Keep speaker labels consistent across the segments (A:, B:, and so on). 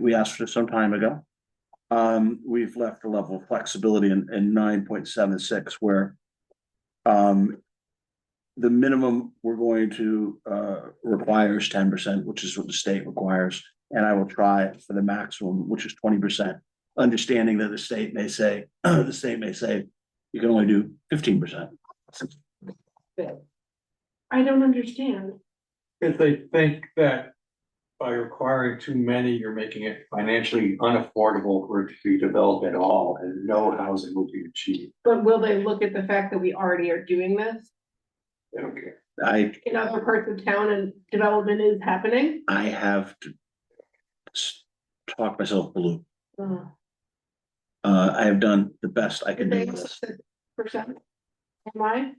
A: we asked for some time ago. Um, we've left a level of flexibility in, in nine point seven six where um, the minimum we're going to, uh, require is ten percent, which is what the state requires. And I will try for the maximum, which is twenty percent, understanding that the state may say, the state may say, you can only do fifteen percent.
B: I don't understand.
C: Cause they think that by requiring too many, you're making it financially unaffordable for it to be developed at all, and no housing will be achieved.
B: But will they look at the fact that we already are doing this
C: They don't care.
A: I
B: in other parts of town and development is happening?
A: I have to s- talk myself blue.
B: Uh,
A: Uh, I have done the best I can do
B: they-
A: with this.
B: Percent. Am I?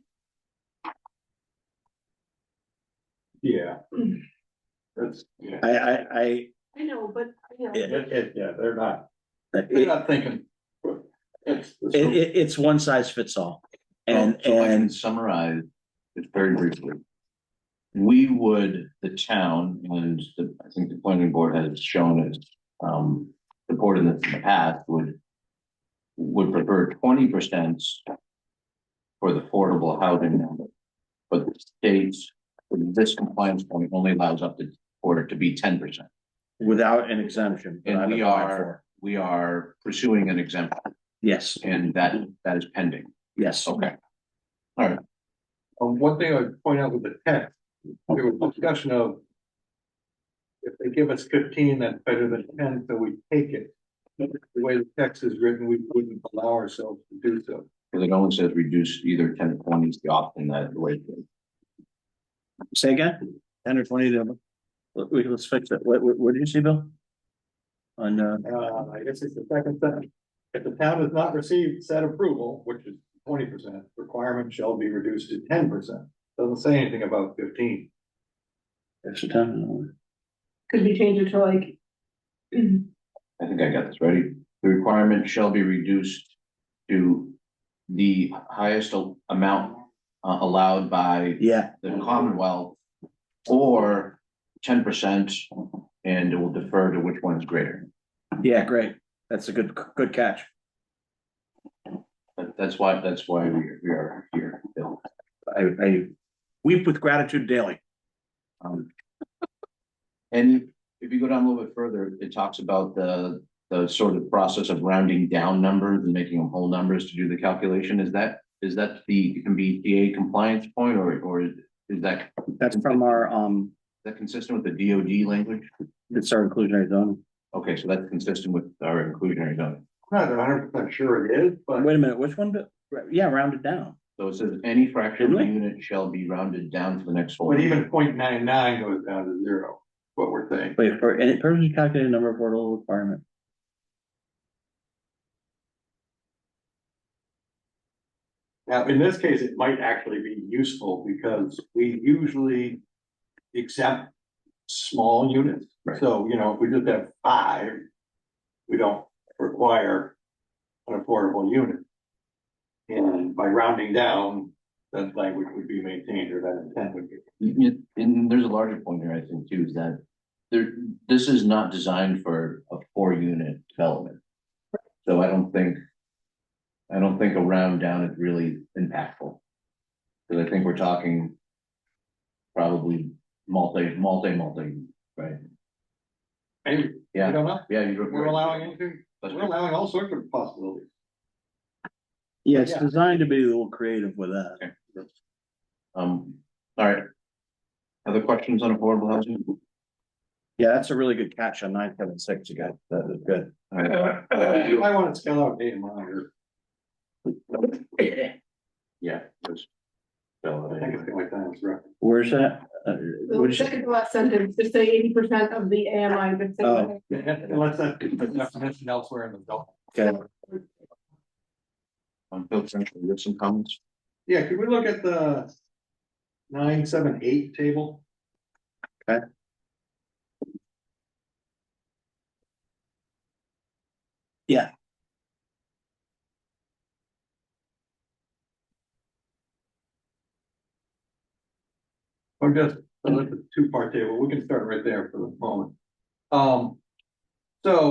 C: Yeah. That's, yeah,
A: I, I, I,
B: I know, but, you know,
A: Yeah.
C: It- it- yeah, they're not, they're
A: it,
C: not thinking. It's,
A: it,
C: it's,
A: it- it's one size fits all. And,
D: oh, So I can
A: and
D: Summarize it very briefly. We would, the town, and the, I think the planning board has shown it, um, supported this in the past, would. Would prefer twenty percent. For the affordable housing number. But the states, this compliance point only allows up to, for it to be ten percent
A: without an exemption. that
D: And
A: I've
D: we
A: applied
D: are-
A: for.
D: we are pursuing an exemption
A: Yes,
D: and that, that is pending.
A: yes.
D: Okay.
C: um, one thing I would point out with the text, there was discussion of. If they give us fifteen, that's better than ten, so we take it. The way the text is written, we wouldn't allow ourselves to do so.
D: Because it only says reduce either ten or twenty is the option that the way.
A: Say again? Ten or twenty to, let, we, let's fix it. What, what, what did you say, Bill? On, uh,
C: Uh, I guess it's the second sentence. If the town has not received said approval, which is twenty percent, requirement shall be reduced to ten percent. Doesn't say anything about fifteen.
A: extra time?
B: could we change it to like? mm,
D: I think I got this ready. The requirement shall be reduced to the highest al- amount uh, allowed by
A: Yeah,
D: the Commonwealth or ten percent, and it will defer to which one is greater.
A: yeah, great. That's a good, good catch.
D: But that's why, that's why we are, we are here, Bill.
A: I, I weep with gratitude daily.
D: Um, And if you go down a little bit further, it talks about the, the sort of process of rounding down numbers and making them whole numbers to do the calculation. Is that, is that the, can be DA compliance point or, or is that, is
A: That's from our, um,
D: that consistent with the DOD language?
A: it's our inclusionary zone.
D: Okay, so that's consistent with our inclusionary zone.
C: I'm Not hundred percent sure it is, but
A: Wait a minute, which one? Bill? Yeah, rounded down.
D: So it says any fraction of a
A: Really?
D: unit shall be rounded down to the next whole.
C: but
D: number.
C: even 0.99 goes down to zero, what we're saying.
A: Wait, for any purpose calculated number of portable requirement.
C: Now, in this case, it might actually be useful because we usually exempt small units.
D: Right.
C: So, you know, if we just have five, we don't require an affordable unit. And by rounding down, that language would be maintained or that intent would be.
D: You- you- And there's a larger point here, I think, too, is that there, this is not designed for a four unit development. So I don't think, I don't think a round down is really impactful. Cause I think we're talking probably multi, multi, multi, right?
C: Anyway, we
D: Yeah,
C: don't know.
D: yeah. you're-
C: We're allowing anything, we're allowing all sorts of possibilities.
A: Yeah, it's
C: Yeah.
A: designed to be a little creative with uh, that.
D: Um, all right. Other questions on affordable housing?
A: Yeah, that's a really good catch on nine seven six, you guys. That is good.
D: All right.
C: Uh, You might want to spell out data monitor.
D: Yeah. just-
C: I think it's the only time it's right.
A: Where's that? Uh,
B: The
A: what'd you say?
B: second to last sentence, just say eighty percent of the AMI, but
A: Oh.
B: say.
C: Unless that's a definition elsewhere in the document.
A: Okay,
D: On Um, Phil Central, you have some comments?
C: Yeah, could we look at the nine, seven, eight table?
A: Okay. Yeah.
C: Oh, Or just, I like the two-part table, we can start right there for the moment. Um, So